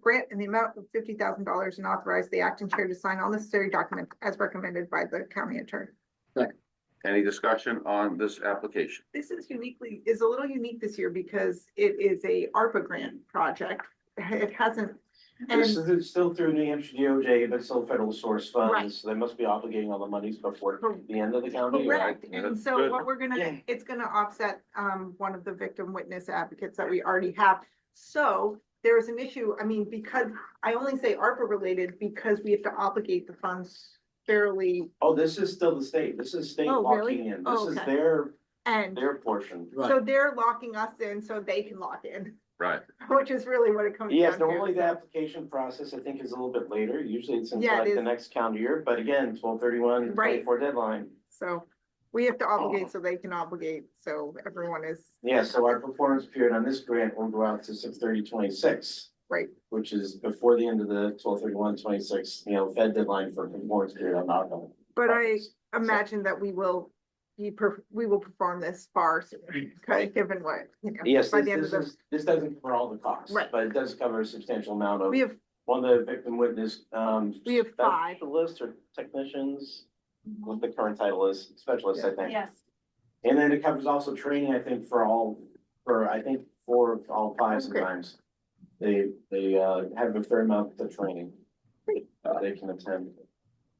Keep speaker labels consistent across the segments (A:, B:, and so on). A: grant in the amount of fifty thousand dollars and authorize the acting chair to sign all necessary documents as recommended by the county attorney.
B: Any discussion on this application?
A: This is uniquely, is a little unique this year because it is a ARPA grant project. It hasn't. and-
C: This is it's still through New Hampshire DOJ, but still federal source
A: Right.
C: funds, so they must be obligating all the monies before the end of the county. year.
A: Correct,
B: Yeah,
A: and
B: that's
A: so
B: good.
A: what we're gonna,
C: Yeah.
A: it's gonna offset um one of the victim witness advocates that we already have. So there is an issue, I mean, because I only say ARPA related because we have to obligate the funds fairly
C: Oh, this is still the state, this is state
A: Oh, really?
C: locking in,
A: Oh,
C: this is
A: okay.
C: their,
A: and
C: their portion.
A: so they're locking us in so they can lock in,
B: Right,
A: which is really what it comes down to.
C: Yes, normally the application process, I think, is a little bit later, usually it's in
A: Yeah, it
C: like the
A: is.
C: next calendar year, but again, twelve thirty-one,
A: Right.
C: twenty-four deadline.
A: So we have to obligate so they can obligate, so everyone is.
C: Yeah, so our performance period on this grant will go out to six thirty twenty-six.
A: Right.
C: Which is before the end of the twelve thirty-one twenty-six, you know, Fed deadline for performance period on alcohol.
A: But I imagine that we will, be per we will perform this far sooner, given what, you know.
C: Yes,
A: by
C: this,
A: the end of
C: this
A: the
C: is, this doesn't cover all the costs,
A: Right.
C: but it does cover a substantial amount of,
A: We have,
C: one of the victim witness, um.
A: we have five.
C: The list or technicians, what the current title is, specialists, I think.
D: Yes,
C: And then it covers also training, I think, for all, for, I think, four, of all five
A: Okay.
C: sometimes. They, they, uh, have a fair amount of training.
A: Great.
C: uh, They can attend.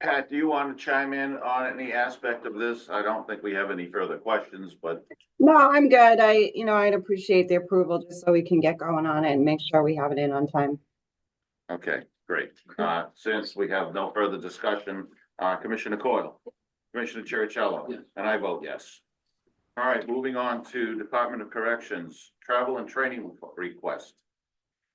B: Pat, do you want to chime in on any aspect of this? I don't think we have any further questions, but
E: No, I'm good. I, you know, I'd appreciate the approval just so we can get going on it and make sure we have it in on time.
B: okay, great. Uh, since we have no further discussion, uh, Commissioner Coyle, Commissioner Cherichello,
F: Yes.
B: and I vote yes. All right, moving on to Department of Corrections, travel and training request.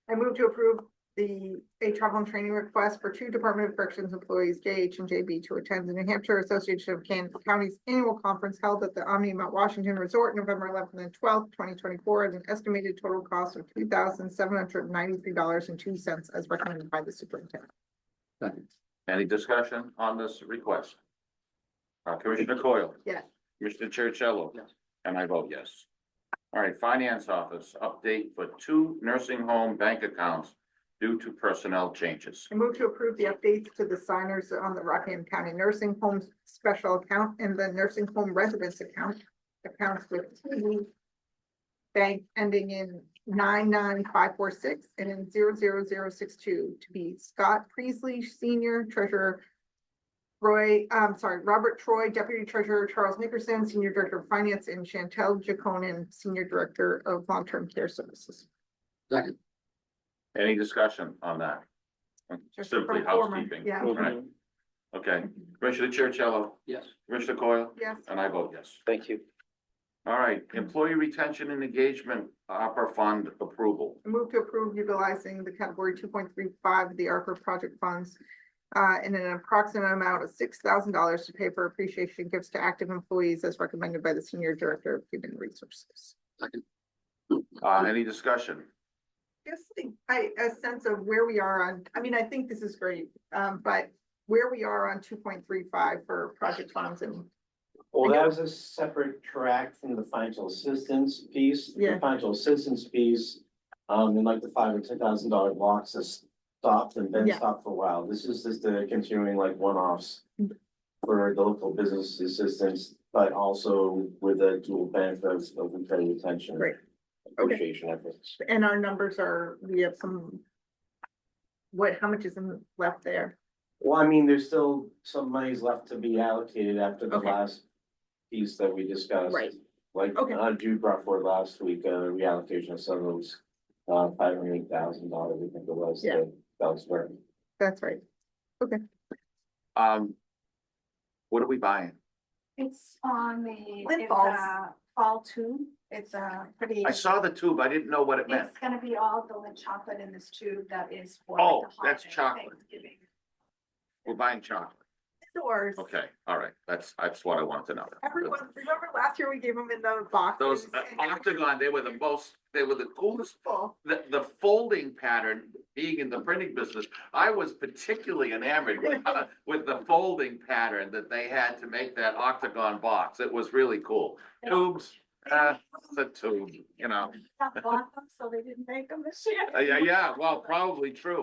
A: I move to approve the, a travel and training request for two Department of Corrections employees, JH and JB, to attend the New Hampshire Association of Kansas Counties Annual Conference held at the Omni Mount Washington Resort, November eleventh and twelfth, twenty twenty-four, at an estimated total cost of two thousand seven hundred ninety-three dollars and two cents as recommended by the superintendent.
F: Second.
B: Any discussion on this request? Uh, Commissioner Coyle?
A: Yes.
B: Commissioner Chercello?
F: Yes.
B: And I vote yes. All right, Finance Office, update for two nursing home bank accounts due to personnel changes.
A: I move to approve the updates to the signers on the Rockingham County Nursing Home Special Account and the Nursing Home Residence Account. Accounts with TD bank ending in nine nine five four six and in zero zero zero six two to be Scott Priestley Senior Treasurer. Roy, I'm sorry, Robert Troy, Deputy Treasurer, Charles Nickerson, Senior Director of Finance, and Chantel Jaconin, Senior Director of Long-Term Care Services.
F: Second.
B: Any discussion on that?
D: Just
B: Simply
D: pro forma,
B: housekeeping.
A: yeah.
B: All right, Okay, Commissioner Chercello,
F: Yes.
B: Commissioner Coyle,
A: Yes.
B: and I vote yes.
C: Thank you.
B: All right, Employee Retention and Engagement Upper Fund approval.
A: I Move to approve utilizing the category two point three five of the ARPA project funds. Uh, in an approximate amount of six thousand dollars to pay for appreciation gifts to active employees as recommended by the Senior Director of Human Resources.
B: Uh, any discussion?
A: Just think, I, a sense of where we are on, I mean, I think this is great, um, but where we are on two point three five for project funds and.
C: Well, that was a separate track from the financial assistance piece. The
A: Yeah.
C: Financial assistance piece, um, in like the five or ten thousand dollar blocks has stopped and been
A: Yeah.
C: stopped for a while. This is just the continuing like one-offs
A: Mm.
C: for the local business assistance, but also with a dual benefit of open credit retention.
A: Great. Okay.
C: Appreciation efforts.
A: And our numbers are, we have some. What, how much is in- left there?
C: Well, I mean, there's still some monies left to be allocated after the
A: Okay.
C: last piece that we discussed.
A: Right.
C: Like,
A: Okay.
C: uh, Jude brought forward last week, uh, reallocation of some of those, uh, five hundred eight thousand dollars, I think it was,
A: Yeah.
C: that that was where.
A: That's right.
B: Um, what are we buying?
D: it's on the,
A: Lint
D: it's
A: balls.
D: a fall tube. It's
A: uh,
D: a pretty,
B: I saw the tube, I didn't know what it meant.
D: it's gonna be all the lint chocolate in this tube that is for.
B: Oh,
D: the
B: that's
D: holiday
B: chocolate.
D: Thanksgiving.
B: We're buying chocolate.
A: Doors.
B: Okay, all right, that's, that's what I wanted to know.
A: Everyone, remember last year we gave them in those boxes?
B: Those uh, octagon, they were the most, they were the coolest,
A: Full.
B: the, the folding pattern, being in the printing business. I was particularly enamored with, uh, with the folding pattern that they had to make that octagon box. It was really cool. Tubes, uh, it's a tube, you know,
D: Not bought them, so they didn't make them this year.
B: Uh, yeah, yeah, well, probably true.